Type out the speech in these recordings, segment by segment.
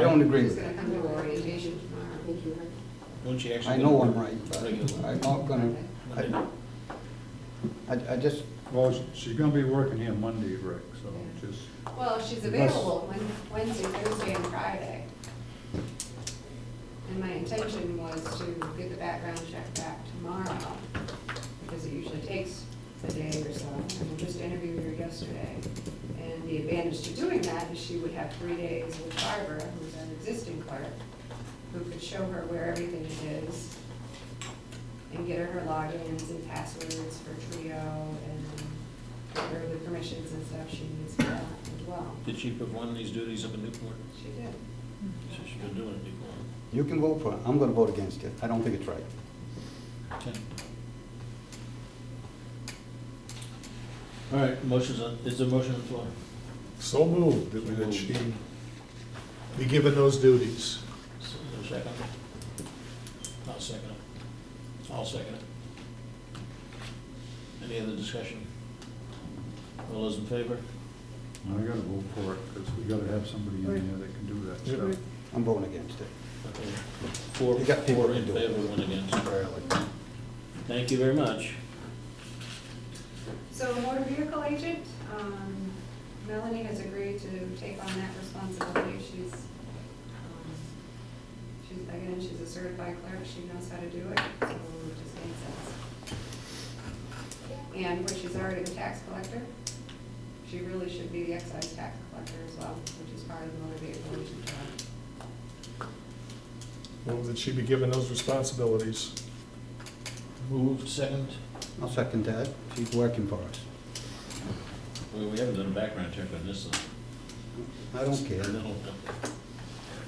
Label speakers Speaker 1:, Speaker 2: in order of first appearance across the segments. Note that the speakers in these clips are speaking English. Speaker 1: don't agree
Speaker 2: He's
Speaker 1: with
Speaker 2: gonna
Speaker 1: that.
Speaker 2: come to our orientation tomorrow, I think you heard.
Speaker 3: Won't you actually?
Speaker 1: I know I'm right, but I'm not gonna, I, I I just,
Speaker 4: Well, she- she's gonna be working here Monday, Rick, so just,
Speaker 2: Well, she's
Speaker 4: Unless-
Speaker 2: available Wed- Wednesday, Thursday, and Friday. And my intention was to get the background check back tomorrow, because it usually takes a day or so. And we just interviewed her yesterday. And the advantage to doing that is she would have three days with Barbara, who's our existing clerk, who could show her where everything is and get her her logins and passwords for Trio and get her the permissions and stuff she needs for that as well.
Speaker 3: Did she put one of these duties up in Newport?
Speaker 2: She did.
Speaker 3: So she's been doing it in Newport.
Speaker 1: you can vote for it, I'm gonna vote against it, I don't think it's right.
Speaker 3: Okay. All right, motion's on, is there a motion on the floor?
Speaker 5: So moved that we- that she be given those duties.
Speaker 3: Is there a second? I'll second it. I'll second it. Any other discussion? All those in favor?
Speaker 4: I gotta vote for it, because we gotta have somebody in there that can do that
Speaker 5: Yeah.
Speaker 4: stuff.
Speaker 1: I'm voting against it.
Speaker 3: Okay. Four,
Speaker 1: You got people
Speaker 3: four
Speaker 1: to
Speaker 3: in
Speaker 1: do it.
Speaker 3: favor, one against. Thank you very much.
Speaker 2: So the motor vehicle agent, um, Melanie has agreed to take on that responsibility. She's, um, she's, again, she's a certified clerk, she knows how to do it, so it just makes sense. And where she's already the tax collector, she really should be the excise tax collector as well, which is part of the motor vehicle agent job.
Speaker 5: Move that she be given those responsibilities.
Speaker 3: Moved, second.
Speaker 1: I'll second that, she's working for us.
Speaker 3: Well, we haven't done a background check on this, though.
Speaker 1: I don't care.
Speaker 3: No.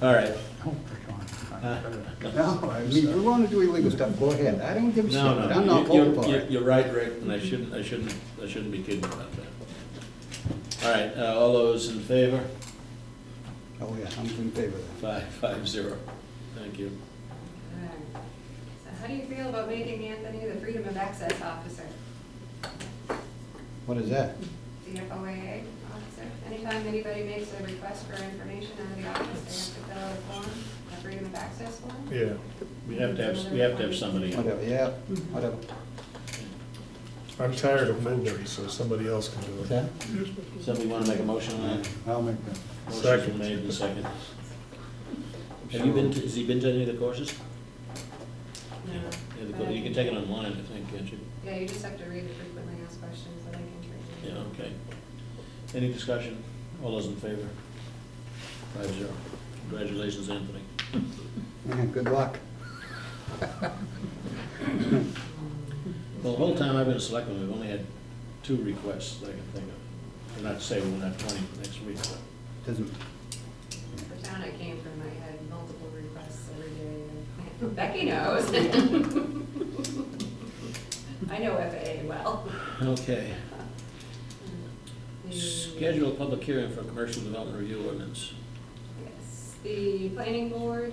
Speaker 3: All right.
Speaker 4: Don't pick on
Speaker 3: Uh,
Speaker 4: her.
Speaker 1: No, I mean, if you wanna do illegal stuff, go ahead, I don't give a shit,
Speaker 3: No,
Speaker 1: I'm
Speaker 3: no,
Speaker 1: not
Speaker 3: you-
Speaker 1: voting
Speaker 3: you're,
Speaker 1: for
Speaker 3: you're-
Speaker 1: it.
Speaker 3: you're right, Rick, and I shouldn't, I shouldn't, I shouldn't be kidding about that. All right, uh, all those in favor?
Speaker 1: Oh, yeah, I'm in favor of that.
Speaker 3: Five, five, zero. Thank you.
Speaker 2: Alright. So how do you feel about making Anthony the Freedom of Access Officer,
Speaker 1: What is that?
Speaker 2: CFOAA officer? Anytime anybody makes a request for information out of the office, they have to fill out a form, a Freedom of Access form?
Speaker 5: Yeah.
Speaker 3: We have to have, we have to have somebody.
Speaker 1: Whatever, yeah, whatever.
Speaker 5: I'm tired of moving, so somebody else can do it.
Speaker 3: Somebody want to make a motion on that?
Speaker 4: I'll make that.
Speaker 3: Motion's been
Speaker 5: Second.
Speaker 3: made and seconded. Have you been, to- has he been to any of the courses? Yeah, the cour- You can take it online, I think, can't you?
Speaker 2: Yeah, you just have to read the frequently asked questions that I can treat.
Speaker 3: Yeah, okay. Any discussion? All those in favor? Five zero. Congratulations, Anthony.
Speaker 1: Yeah, Good luck.
Speaker 3: Well, the whole time I've been a selectman, we've only had two requests that I can think of. And not to say we won't have twenty next week, but
Speaker 1: Doesn't,
Speaker 2: The town I came from, I had multiple requests every day. Becky knows. I know FAA well.
Speaker 3: Okay.
Speaker 2: The-
Speaker 3: Schedule a public hearing for commercial development review ordinance.
Speaker 2: Yes, the planning board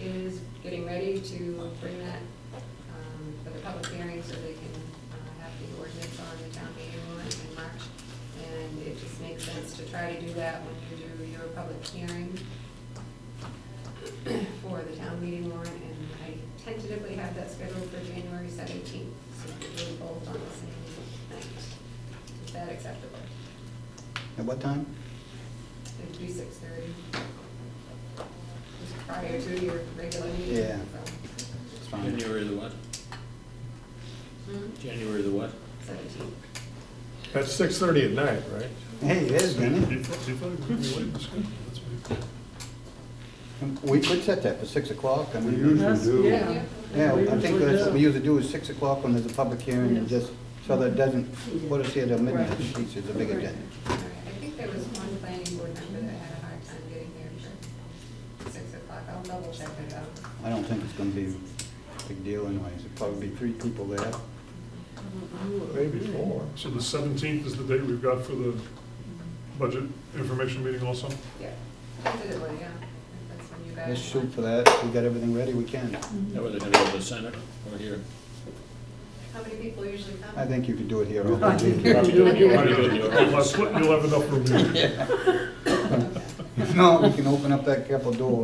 Speaker 2: is getting ready to bring that um, for the public hearing so they can uh, have the ordinance on the town meeting warrant in March. And it just makes sense to try to do that when you do your public hearing for the town meeting warrant. And I tentatively have that scheduled for January seventeenth, so we will both on the same night. Is that acceptable?
Speaker 1: at what time?
Speaker 2: It'd be six thirty. Prior to your regular meeting.
Speaker 1: Yeah.
Speaker 2: so.
Speaker 1: It's fine.
Speaker 3: January the what?
Speaker 2: Hmm?
Speaker 3: January the what?
Speaker 2: Seventeen.
Speaker 5: That's six thirty at night, right?
Speaker 1: Hey, it is, isn't it? We could set that for six o'clock, I
Speaker 4: We
Speaker 1: mean,
Speaker 4: usually do.
Speaker 6: Yeah.
Speaker 1: yeah, I think
Speaker 6: usually
Speaker 1: that's what we
Speaker 6: do.
Speaker 1: usually do is six o'clock when there's a public hearing, and
Speaker 6: Yes.
Speaker 1: just, so that it doesn't put us here till midnight, It's a big agenda.
Speaker 2: All right, I think there was one planning board member that had a hard time getting there for six o'clock. I'll double check it out.
Speaker 1: I don't think it's gonna be a big deal anyways, it'll probably be three people there.
Speaker 5: Maybe four.
Speaker 7: So the seventeenth is the date we've got for the budget information meeting also?
Speaker 2: Yeah, tentatively, yeah. If That's when you guys.
Speaker 1: Let's shoot for that, we got everything ready, we can.
Speaker 3: That way they're gonna go to the center or here.
Speaker 2: How many people usually come?
Speaker 1: I think you could do it here.
Speaker 6: I think you
Speaker 1: all.
Speaker 6: can do it
Speaker 7: You'll
Speaker 6: here.
Speaker 7: have enough room here.
Speaker 2: Okay.
Speaker 1: If not, we can open up that couple door